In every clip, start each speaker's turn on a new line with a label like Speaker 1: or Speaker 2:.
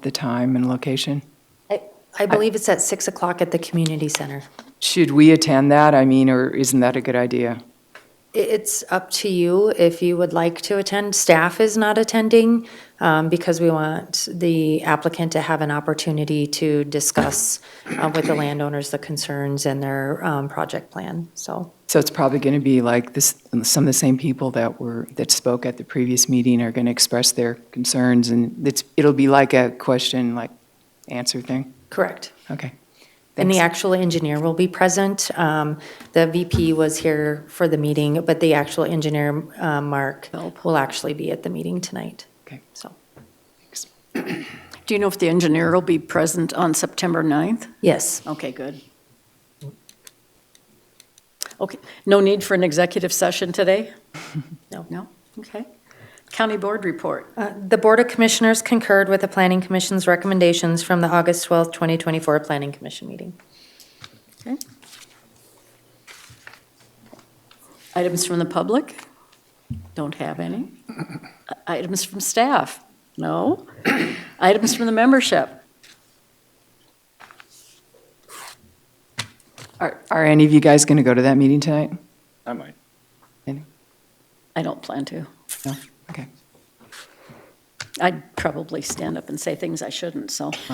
Speaker 1: the time and location?
Speaker 2: I- I believe it's at 6 o'clock at the community center.
Speaker 1: Should we attend that? I mean, or isn't that a good idea?
Speaker 2: I- It's up to you if you would like to attend. Staff is not attending um, because we want the applicant to have an opportunity to discuss uh, with the landowners the concerns and their um, project plan, so.
Speaker 1: So it's probably going to be like this, some of the same people that were, that spoke at the previous meeting are going to express their concerns, and it's, it'll be like a question, like, answer thing?
Speaker 2: Correct.
Speaker 1: Okay.
Speaker 2: And the
Speaker 1: Thanks.
Speaker 2: actual engineer will be present. Um, The VP was here for the meeting, but the actual engineer, uh, Mark, will actually be at the meeting tonight.
Speaker 1: Okay.
Speaker 2: So,
Speaker 3: Do you know if the engineer will be present on September 9th?
Speaker 2: yes.
Speaker 3: Okay, good. Okay, no need for an executive session today?
Speaker 2: No.
Speaker 3: No? Okay. County Board report.
Speaker 2: Uh, The Board of Commissioners concurred with the Planning Commission's recommendations from the August 12th, 2024 Planning Commission meeting.
Speaker 3: Okay. Items from the public? Don't have any. Items from staff? No. Items from the membership?
Speaker 1: Are, are any of you guys going to go to that meeting tonight?
Speaker 4: I might.
Speaker 1: Any?
Speaker 3: I don't plan to.
Speaker 1: No? Okay.
Speaker 3: I'd probably stand up and say things I shouldn't, so.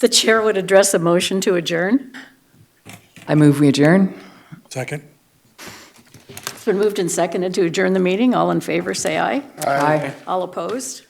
Speaker 3: The chair would address a motion to adjourn.
Speaker 1: I move we adjourn.
Speaker 5: Second.
Speaker 3: It's been moved and seconded to adjourn the meeting. All in favor, say aye.
Speaker 1: Aye.
Speaker 3: All opposed?